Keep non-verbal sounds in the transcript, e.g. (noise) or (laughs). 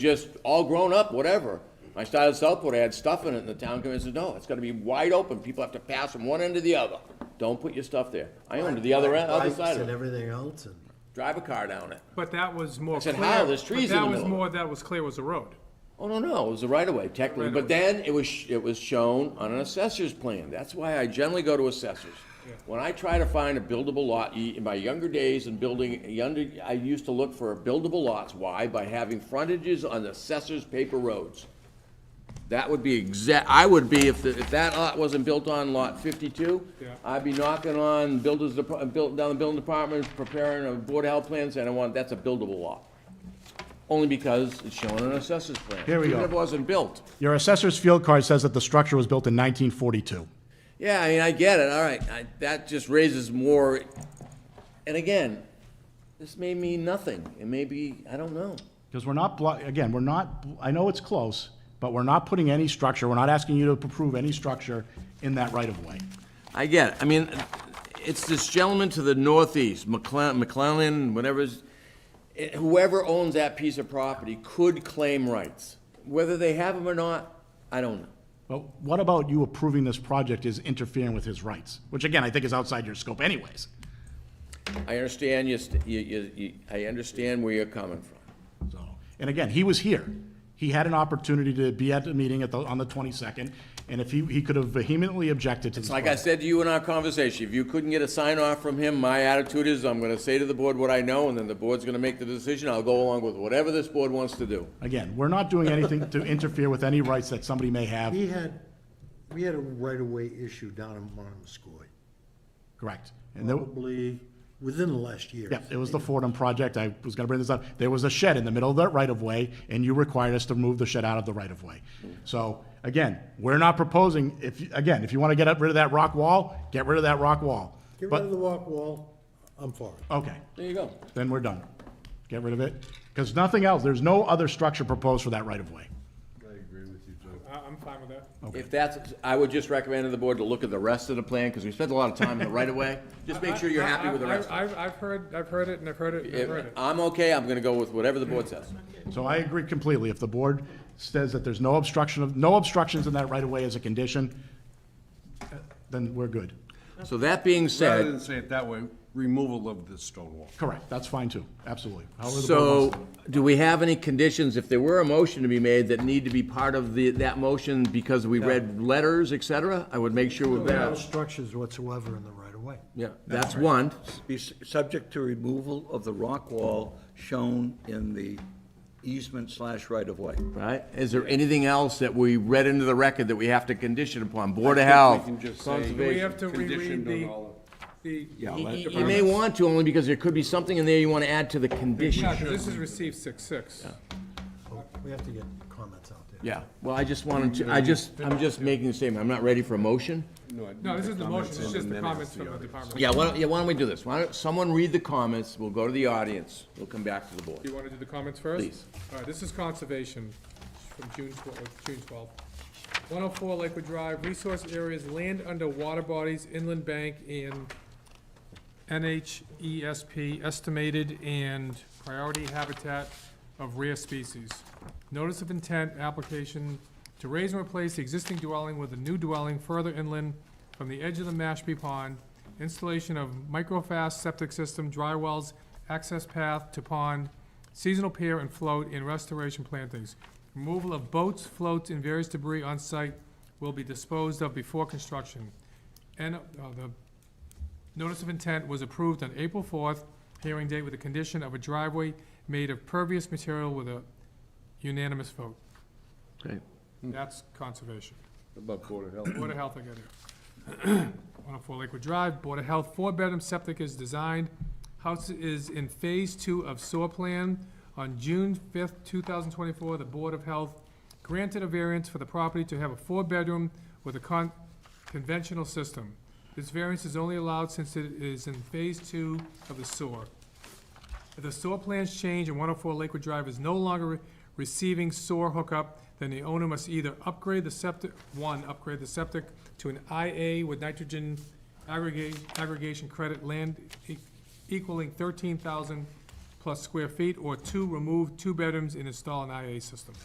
just all grown up, whatever. I started Southport, I had stuff in it, and the town committee said, no, it's gotta be wide open, people have to pass from one end to the other. Don't put your stuff there. I owned the other end, other Bikes side of And it. everything else, and Drive a car down it. But that was more said, clear. "How? There's trees but in the That was middle." more, that was clear was a road. Oh, no, no, it was the right of way technically, but then it was, sh- it was shown on an assessor's plan. That's why I generally go to assessors. When I try to find a buildable lot, y- in my younger days in building, younger, I used to look for buildable lots. Why? By having frontages on the assessor's paper roads. That would be exact, I would be, if, the- if that lot wasn't built on lot fifty-two, Yeah. I'd be knocking on builders, dep- built, down the building department, preparing a board of health plan, saying, I want, that's a buildable lot. Only because it's shown on an assessor's plan. Here we Even go. if it wasn't built. Your assessor's field card says that the structure was built in 1942. Yeah, I mean, I get it, all right, I, that just raises more, and again, this may mean nothing, it may be, I don't know. Because we're not, blo- again, we're not, I know it's close, but we're not putting any structure, we're not asking you to approve any structure in that right-of-way. I get it. I mean, it's this gentleman to the northeast, McCle- McClellan, whatever's, eh, whoever owns that piece of property could claim rights. Whether they have them or not, I don't know. But what about you approving this project is interfering with his rights? Which, again, I think is outside your scope anyways. I understand you, st- you, you- you, I understand where you're coming from. So, and again, he was here. He had an opportunity to be at the meeting at the, on the 22nd, and if he, he could have vehemently objected to this. It's like I project. said to you in our conversation, if you couldn't get a sign off from him, my attitude is, I'm gonna say to the board what I know, and then the board's gonna make the decision, I'll go along with whatever this board wants to do. Again, we're not doing anything to interfere with any rights that somebody may have, he had, we had a right-of-way issue down in Monomoskoy, correct? And there- probably within the last year. Yeah, it was the Fordham project, I was gonna bring this up, there was a shed in the middle of that right-of-way, and you required us to move the shed out of the right-of-way. Mm. So, again, we're not proposing, if, you- again, if you wanna get rid of that rock wall, get rid of that rock wall. Get rid of But, the walk wall, I'm for it. okay, There you go. then we're done. Get rid of it, because nothing else, there's no other structure proposed for that right-of-way. I, I'm fine with that. If that's, I would just recommend to the board to look at the rest of the plan, because we spent a lot of time in the right of (laughs) way. Just make sure you're happy with the rest. I, I've, I've heard, I've heard it and I've heard it and I've heard If it. I'm okay, I'm gonna go with whatever the board says. So I agree completely, if the board says that there's no obstruction of, no obstructions in that right-of-way as a condition, uh, then we're good. So that being Rather said, than say it that way, removal of the stone wall. Correct, that's fine too, absolutely. However the board wants so to- do we have any conditions, if there were a motion to be made that need to be part of the, that motion because we read letters, et cetera? I would make sure with No that, structures whatsoever in the right-of-way. yeah, that's one. be s- subject to removal of the rock wall shown in the easement slash right-of-way. Right, is there anything else that we read into the record that we have to condition upon? Board of Health, We can just say We Conservation. have to reread conditioned on the, all the. Yeah, You- let- You you may want to, only because there could be something in there you want to add to the condition. Yeah, 'cause this is received six-six. We have to get comments out there. Yeah, well, I just wanted to, I just, I'm just making a statement, I'm not ready for a motion. of- I No, this need is the motion, comments it's in just and the then it's comments the from the other. department. Yeah, why don't, yeah, why don't we do this? Why don't, someone read the comments, we'll go to the audience, we'll come back to the Do board. you want to do the comments first? Please. All right, this is conservation from June twelfth, June twelfth. One oh four Lakewood Drive, resource areas, land under water bodies, inland bank, and NHESP E estimated and priority habitat of rare species. Notice of intent, application to raise and replace the existing dwelling with a new dwelling further inland from the edge of the Mashpee Pond, installation of microfast septic system, dry wells, access path to pond, seasonal pier and float, and restoration plantings. Removal of boats, floats, and various debris on site will be disposed of before construction. And, uh, the Notice of intent was approved on April fourth, hearing date with the condition of a driveway made of pervious material with a unanimous vote. Okay. That's conservation. About Board of Health. Board of Health, I got it. (clears throat) One oh four Lakewood Drive, Board of Health, four-bedroom septic is designed. House is in phase two of SOAR plan. On June fifth, two thousand twenty-four, the Board of Health granted a variance for the property to have a four-bedroom with a con- conventional system. This variance is only allowed since it is in phase two of the SOAR. If the SOAR plans change and 104 Lakewood Drive is no longer re- receiving SOAR hookup, then the owner must either upgrade the septic, one, upgrade the septic to an IA with nitrogen aggregate, aggregation credit land e- equaling thirteen thousand plus square feet, or two, remove two bedrooms and install an IA system.